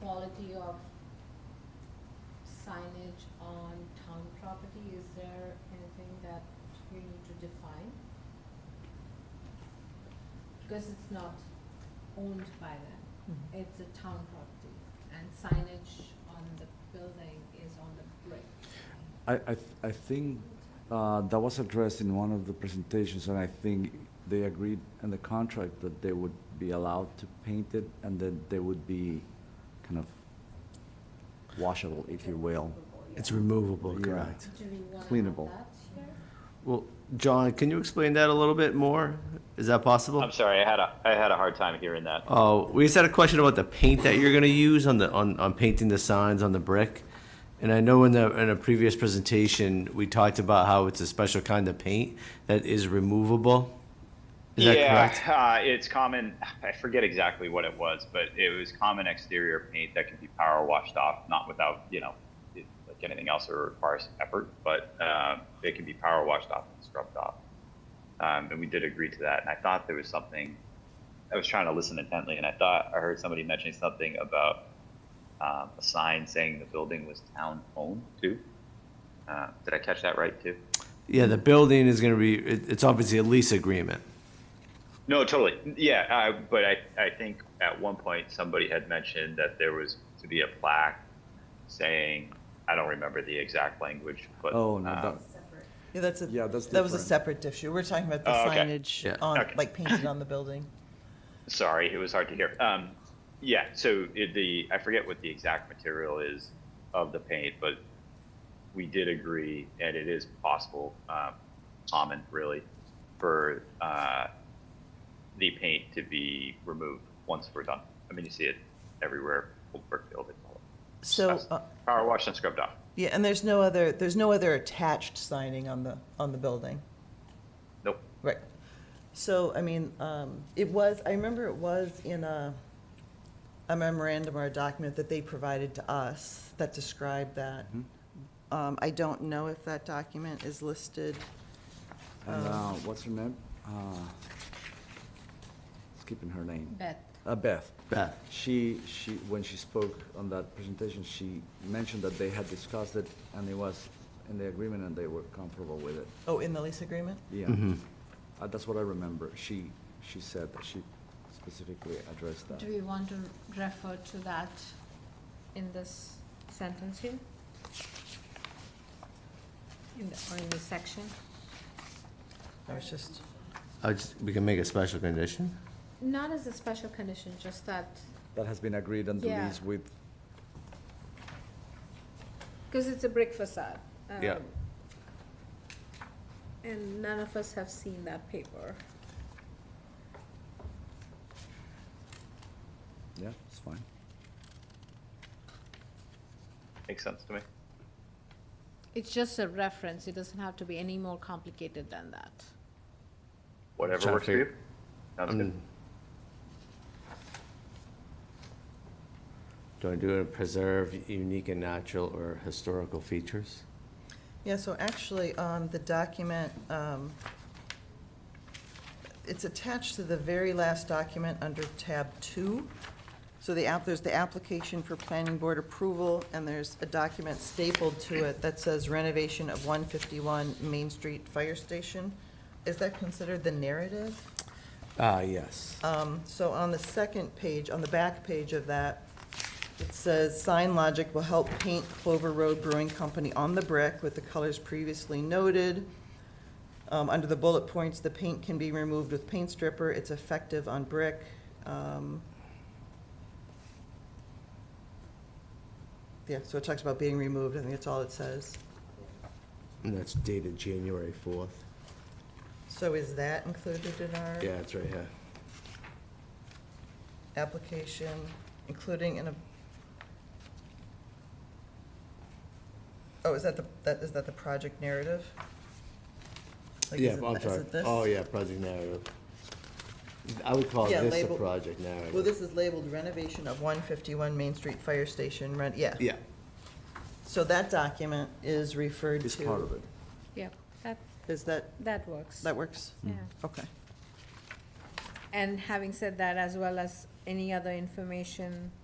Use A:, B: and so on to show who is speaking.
A: quality of signage on town property, is there anything that you need to define? Because it's not owned by them,
B: Mhm.
A: it's a town property, and signage on the building is on the brick.
C: I, I, th- I think uh, that was addressed in one of the presentations, and I think they agreed in the contract that they would be allowed to paint it, and that they would be kind of washable, if you will.
D: It's removable,
C: Yeah.
D: correct.
A: Do we wanna have
C: Cleanable.
A: that here?
D: Well, John, can you explain that a little bit more? Is that possible?
E: I'm sorry, I had a I had a hard time hearing that.
D: Oh, we just had a question about the paint that you're gonna use on the, on, on painting the signs on the brick. And I know in the, in a previous presentation, we talked about how it's a special kind of paint that is removable. Is that
E: yeah,
D: correct?
E: uh, it's common. I forget exactly what it was, but it was common exterior paint that can be power washed off, not without you know, it, like anything else, it requires effort, but uh, it can be power washed off and scrubbed off. Um, and we did agree to that. And I thought there was something. I was trying to listen intently, and I thought I heard somebody mentioning something about um, a sign saying the building was town owned too. Uh, did I catch that right too?
D: Yeah, the building is gonna be, it, it's obviously a lease agreement.
E: No, totally. Yeah, I, but I, I think at one point somebody had mentioned that there was to be a plaque saying, I don't remember the exact language, but
C: Oh, no,
E: um,
C: that,
B: Yeah, that's a,
C: Yeah, that's
B: that was a
C: different.
B: separate issue. We're talking about the
E: Oh, okay.
D: Yeah.
B: signage on,
E: Okay.
B: like painted on the building.
E: sorry, it was hard to hear. Um, yeah, so it, the I forget what the exact material is of the paint, but we did agree, and it is possible, um, common really, for uh, the paint to be removed once we're done. I mean, you see it everywhere, Old Brookfield, it's all.
B: So,
E: That's
B: uh,
E: power washed and scrubbed off.
B: yeah, and there's no other, there's no other attached signing on the, on the building.
E: Nope.
B: Right. So, I mean, um, it was, I remember it was in a, a memorandum or a document that they provided to us that described that.
C: Mm-hmm.
B: Um, I don't know if that document is listed. um,
C: and, uh, what's her name? Uh, Skipping her name.
A: Beth,
C: Uh, Beth.
D: Beth.
C: She, she, when she spoke on that presentation, she mentioned that they had discussed it, and it was in the agreement, and they were comfortable with it.
B: Oh, in the lease agreement?
C: Yeah,
D: Mm-hmm.
C: Uh, that's what I remember. She she said that she specifically addressed that.
A: do we want to refer to that in this sentence here? In the, or in this section?
B: I was just,
D: I just, we can make a special condition?
A: Not as a special condition, just that,
C: That has been agreed on the
A: Yeah.
C: lease with.
A: because it's a brick facade.
D: Yeah.
A: um, And none of us have seen that paper.
C: Yeah, it's fine.
E: Makes sense to me.
A: It's just a reference, it doesn't have to be any more complicated than that.
E: Whatever
D: Sounds
E: works for
D: fair.
E: you. Sounds good.
D: Um, Do I do it preserve unique and natural or historical features?
B: yeah, so actually on the document, um, it's attached to the very last document under tab two. So the app, there's the application for planning board approval, and there's a document stapled to it that says renovation of one fifty-one Main Street Fire Station. Is that considered the narrative?
D: Ah, yes.
B: Um, So on the second page, on the back page of that, it says, "Sign Logic will help paint Clover Road Brewing Company on the brick with the colors previously noted. Um, Under the bullet points, the paint can be removed with paint stripper. It's effective on brick." Um, Yeah, so it talks about being removed. I think that's all it says.
D: And that's dated January fourth.
B: So is that included in our?
D: Yeah, it's right here.
B: application, including in a, oh, is that the, that, is that the project narrative? Like, is
D: Yeah,
B: it-
D: I'm
B: is
D: sorry.
B: it this?
D: Oh, yeah, project narrative. I would call
B: Yeah,
D: this the
B: label-
D: project narrative.
B: Well, this is labeled renovation of one fifty-one Main Street Fire Station, ren, yeah.
D: Yeah,
B: So that document is referred to.
C: It's part of it.
A: Yeah, that,
B: Is that,
A: that works.
B: that works?
A: Yeah.
B: Okay.
A: And having said that, as well as any other information uh,